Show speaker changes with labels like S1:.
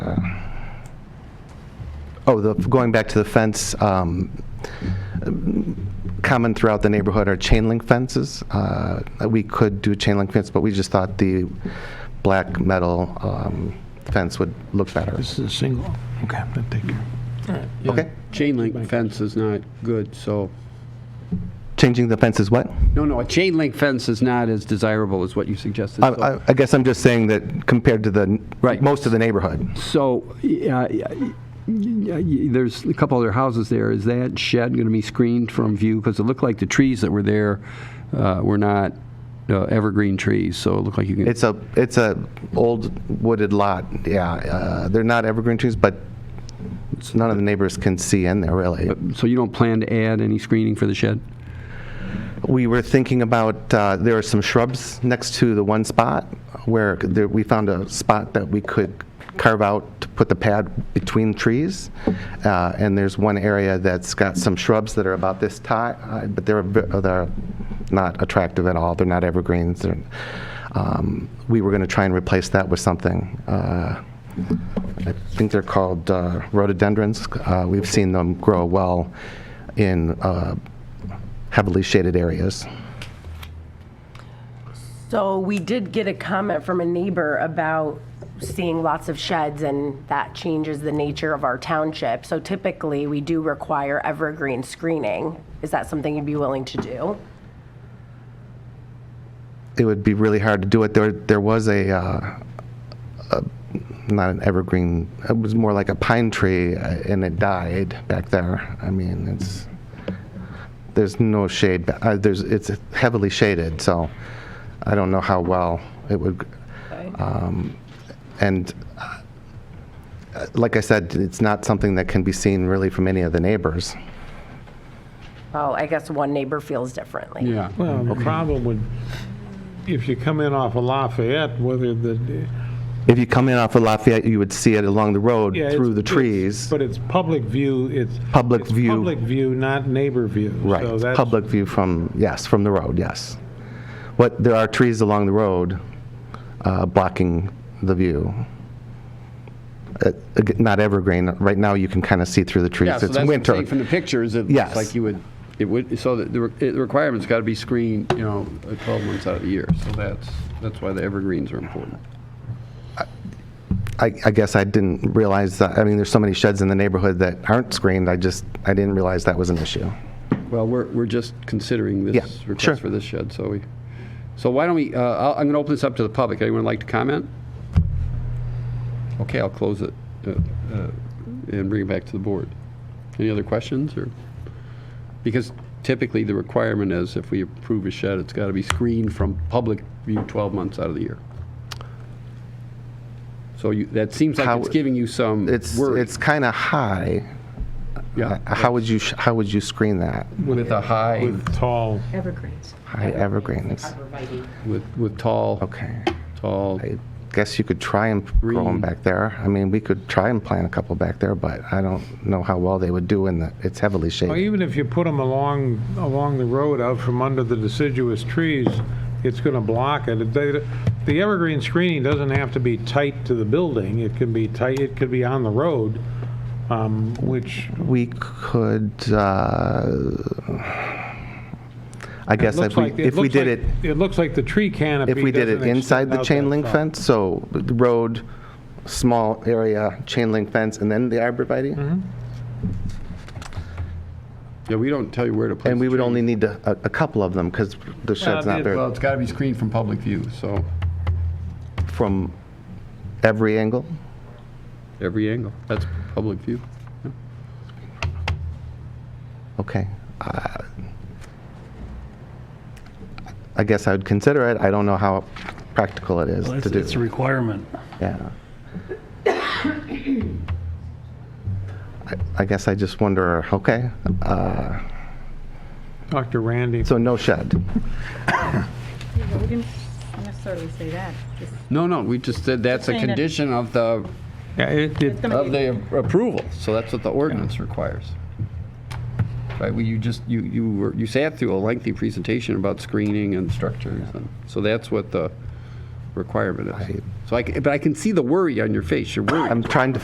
S1: Oh, the, going back to the fence, um, common throughout the neighborhood are chain link fences. Uh, We could do chain link fence, but we just thought the black metal um, fence would look better.
S2: This is a single, okay, I take care.
S3: Yeah,
S1: Okay.
S3: Chain link fence is not good, so,
S1: Changing the fence is what?
S3: no, no, a chain link fence is not as desirable as what you suggested.
S1: I-
S3: so-
S1: I I guess I'm just saying that compared to the,
S3: Right.
S1: most of the neighborhood.
S3: So, uh, y- y- there's a couple other houses there. Is that shed going to be screened from view? Because it looked like the trees that were there uh, were not uh, evergreen trees, so it looked like you can...
S1: It's a, it's a old wooded lot, yeah. Uh, They're not evergreen trees, but none of the neighbors can see in there, really.
S3: So you don't plan to add any screening for the shed?
S1: We were thinking about, uh, there are some shrubs next to the one spot where there- we found a spot that we could carve out to put the pad between trees. Uh, And there's one area that's got some shrubs that are about this ti- uh but they're, a bit- uh, they're not attractive at all. They're not evergreens. They're, um, We were going to try and replace that with something. uh, I think they're called uh, rhododendrons. Uh, We've seen them grow well in uh, heavily shaded areas.
S4: So we did get a comment from a neighbor about seeing lots of sheds, and that changes the nature of our township. So typically, we do require evergreen screening. Is that something you'd be willing to do?
S1: It would be really hard to do it. There, there was a, uh, a not an evergreen. It was more like a pine tree, uh, and it died back there. I mean, it's there's no shade. ba- Uh, there's it's heavily shaded, so I don't know how well it would. Um, and uh, like I said, it's not something that can be seen really from any of the neighbors.
S4: Well, I guess one neighbor feels differently.
S3: Yeah.
S2: Well, the problem would, if you come in off of Lafayette, whether the,
S1: If you come in off of Lafayette, you would see it along the road
S2: yeah.
S1: through
S2: it's-
S1: the
S2: it's-
S1: trees.
S2: But it's public view, it's.
S1: Public
S2: it's
S1: view.
S2: Public view, not neighbor view.
S1: Right,
S2: So
S1: it's
S2: that's-
S1: public view from, yes, from the road, yes. What, there are trees along the road uh, blocking the view. Uh, ag- Not evergreen, right now you can kind of see through the trees.
S3: Yeah, so
S1: It's
S3: that's what I'm
S1: winter.
S3: saying from the pictures, it looks
S1: Yes.
S3: like you would, it would, so the- the re- the requirement's got to be screened, you know, uh, 12 months out of the year. So that's, that's why the evergreens are important.
S1: I I guess I didn't realize, that. I mean, there's so many sheds in the neighborhood that aren't screened, I just, I didn't realize that was an issue.
S3: Well, we're, we're just considering
S1: Yeah,
S3: this
S1: sure.
S3: request for this shed, so we, so why don't we, uh, I'll- I'm going to open this up to the public. Anyone like to comment? Okay, I'll close it uh, uh, and bring it back to the board. Any other questions, or? Because typically, the requirement is if we approve a shed, it's got to be screened from public view 12 months out of the year. So you, that seems like
S1: How-
S3: it's giving you some
S1: It's,
S3: worry.
S1: it's kind of high. Uh,
S3: Yeah.
S1: How would you, sh- how would you screen that?
S3: With a high,
S2: With tall,
S5: Evergreens.
S1: High evergreens,
S3: with, with tall,
S1: okay.
S3: tall.
S1: I guess you could try and grow them
S3: Green.
S1: back there. I mean, we could try and plant a couple back there, but I don't know how well they would do in the, it's heavily
S2: well,
S1: shaded.
S2: even if you put them along, along the road out from under the deciduous trees, it's going to block it. If they- The evergreen screening doesn't have to be tight to the building. It can be tight, it could be on the road, um, which
S1: We could, uh, I guess
S2: Looks
S1: if we,
S2: like-
S1: if we
S2: looks
S1: did
S2: like-
S1: it,
S2: It looks like the tree canopy.
S1: if we did it
S2: doesn't
S1: inside
S2: extend
S1: the
S2: out
S1: chain
S2: that
S1: link
S2: far.
S1: fence, so the road, small area, chain link fence, and then the arborvitae?
S3: Yeah, we don't tell you where to place.
S1: And we
S3: the
S1: would
S3: tree.
S1: only need a, a a couple of them, because the shed's not
S3: Well,
S1: very,
S3: it's got to be screened from public view, so.
S1: from every angle?
S3: Every angle, that's public view.
S1: Okay. Uh, I guess I would consider it. I don't know how practical it is
S6: Well,
S1: to
S6: It's it's a
S1: do.
S6: requirement.
S1: Yeah. I- I guess I just wonder, okay, uh,
S2: Talk to Randy.
S1: so no shed.
S5: Yeah, we didn't necessarily say that. Just-
S3: No, no, we just said that's a
S5: Saying that-
S3: condition of the,
S2: Yeah, it- it-
S5: it's gonna
S3: of
S5: be-
S3: the approval, so that's what the ordinance requires. Right, well, you just, you, you were, you sat through a lengthy presentation about screening and structures, and, so that's what the requirement is. So I, can- but I can see the worry on your face, you're worried.
S1: I'm trying to